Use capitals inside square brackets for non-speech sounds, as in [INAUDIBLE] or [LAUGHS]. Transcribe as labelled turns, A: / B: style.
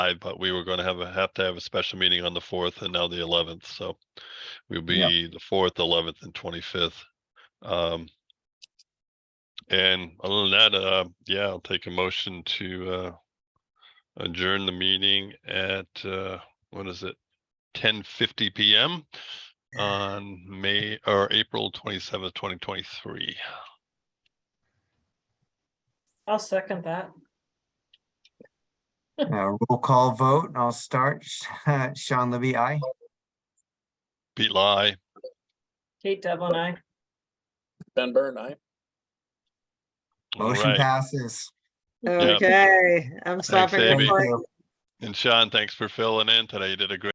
A: I, but we were gonna have a, have to have a special meeting on the fourth and now the eleventh, so. We'll
B: Yeah.
A: be the fourth, eleventh and twenty-fifth. Um. And other than that, uh, yeah, I'll take a motion to, uh. Adjourn the meeting at, uh, what is it? Ten fifty PM on May or April twenty-seventh, twenty twenty-three.
C: I'll second that.
B: Uh, Roll call vote, and I'll start. [LAUGHS] Sean Libby, aye.
A: Pete Lai,
C: Kate Devlin, I.
D: Ben Burn, aye.
B: Motion
A: Alright.
B: passes.
A: Yep.
E: Okay, I'm stopping
A: Abby.
B: Thank
E: recording.
B: you.
A: and Sean, thanks for filling in today. You did a great